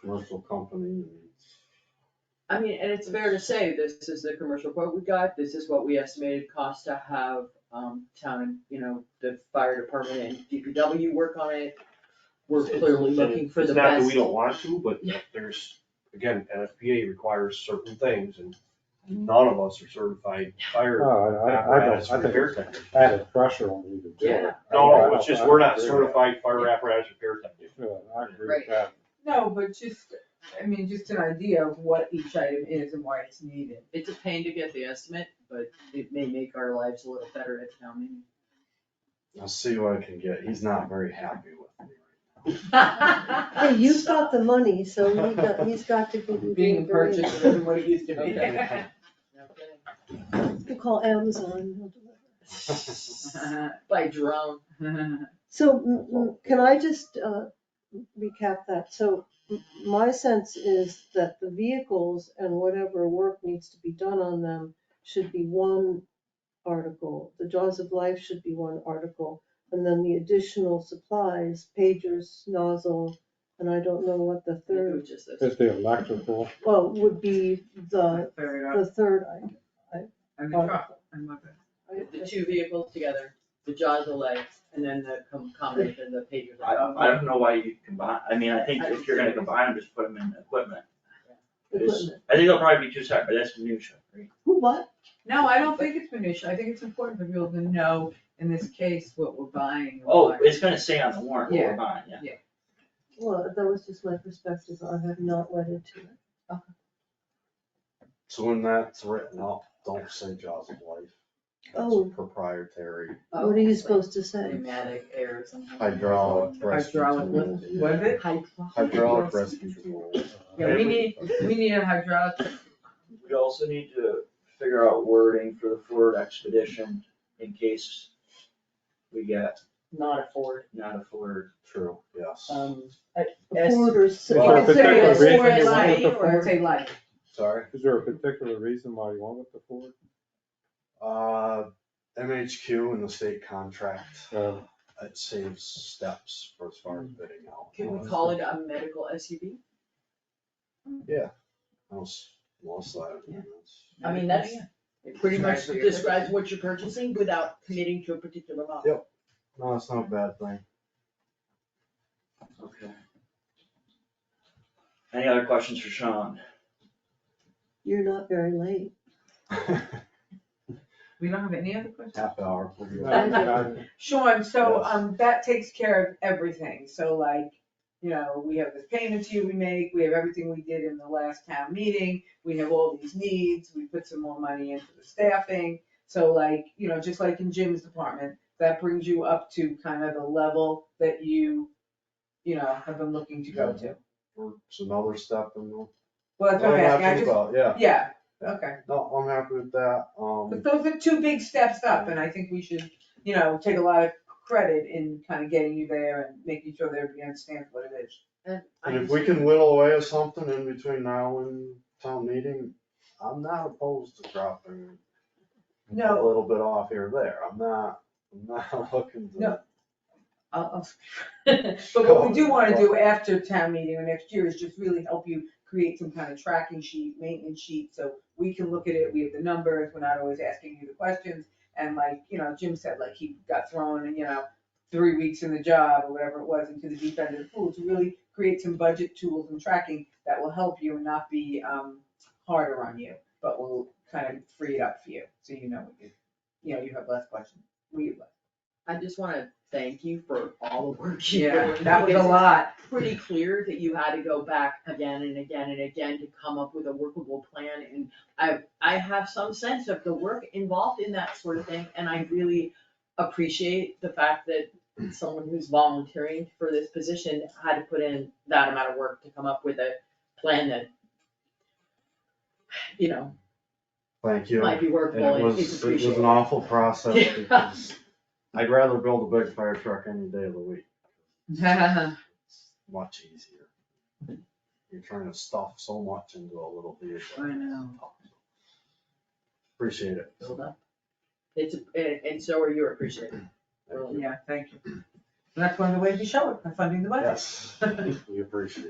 commercial company. I mean, and it's fair to say, this is the commercial quote we got, this is what we estimated cost to have, um, town, and you know, the fire department and DPW work on it. We're It's- clearly and looking for the It's not that best. we don't want to, but Yeah. there's, again, NFPA requires certain things and Mm-hmm. none of us are certified fire No, I, I- I apparatus don't, I think repair it's technicians. added pressure on you to do it. Yeah. No, no, it's just, we're not Yeah, certified fire apparatus repair technicians. Yeah, I agree with that. No, but just, I mean, just an idea of what each item is and why it's needed. It's a pain to get the estimate, but it may make our lives a little better at town meeting. I'll see what I can get. He's not very happy with me. Hey, you've got the money, so he got, he's got to give you. the Being information. purchased isn't what it used to be. Okay. You can call Amazon. they'll deliver. By drone. So m- m- can I just uh, recap that? So m- my sense is that the vehicles and whatever work needs to be done on them should be one article. The Jaws of Life should be one article. And then the additional supplies, pagers, nozzle, and I don't know what the It third, was just this. It's the electrical, well, would be the, Fair the enough. third item. And uh, the truck, and what the- The two vehicles together, the jaws delay, and then the com- combination of the pagers. I don't, I don't know why you combine, I mean, I think if you're gonna combine them, just put them in equipment. It's- Equipment. I think they'll probably be too separate, but that's minutia, right? Who what? No, I don't think it's minutia. I think it's important for people to know, in this case, what we're buying. and Oh, why. it's gonna say on the warrant what Yeah. we're buying, yeah. Well, that was just my perspective. I have not wedded to it. So when that's written up, don't say jaws of life. Oh. That's proprietary What are you supposed to say? Pneumatic air or something. hydraulic rescue Hydraulic tool. Was it? Hydraulic rescue tool. Yeah, we need, we need a hydraulic, We also need to figure out wording for the Ford expedition in case we get Not a Ford, not a Ford. True, yes. um, A Ford or s- Well, you could say particular a reason Ford you want is it like- to or say light. Sorry. is there a particular reason why you went with the Ford? Uh, MHQ and the state contract, Uh, it saves steps for as Hmm. far as bidding out. can we call it a medical SUV? Most, most of that. I mean, that's, it pretty much describes what you're purchasing without committing to a particular model. No, it's not a bad thing. Okay. Any other questions for Sean? You're not very late. We don't have any other questions? Half hour. we'll be no, back. I- Sean, so, Yes. um, that takes care of everything, so like, you know, we have this payment due we make, we have everything we did in the last town meeting, we have all these needs, we put some more money into the staffing, so like, you know, just like in Jim's department, that brings you up to kind of the level that you, you know, have been looking to go to. It's another step in the. Well, that's what I'm I'm asking, I happy just, about, yeah. yeah, okay. No, I'm happy with that, um, But those are two big steps up, and I think we should, you know, take a lot of credit in kind of getting you there and making sure that everybody understands what it is. And I and if just- we can whittle away at something in between now and town meeting, I'm not opposed to dropping a No, little bit off here or there, I'm not, I'm not looking to. No, I'll, I'll, but what we do wanna do after town meeting or next year is just really help you create some kind of tracking sheet, maintenance sheet, so we can look at it, we have the numbers, we're not always asking you the questions. And like, you know, Jim said, like, he got thrown, you know, three weeks in the job or whatever it was into the deep end of the pool, to really create some budget tools and tracking that will help you and not be, um, harder on you, but will kind of free it up for you, so you know, what you, you know, you have less questions, we have less. I just wanna thank you for all the work you Yeah, did. that was a lot. Pretty clear that you had to go back again and again and again to come up with a workable plan, and I, I have some sense of the work involved in that sort of thing, and I really appreciate the fact that someone who's volunteering for this position had to put in that amount of work to come up with a plan that, you know, Thank you. might be And workable it and was, is it was appreciated. an awful process Yeah. because I'd rather build a big fire truck any day of the week. It's Much easier. You're trying to stuff so much into a little vehicle. I know. Appreciate it. Build up. It's, and, and so are you appreciated. Thank Really. you. Yeah, thank you. And that's one of the ways you show it, by funding the budget. Yes. We appreciate it.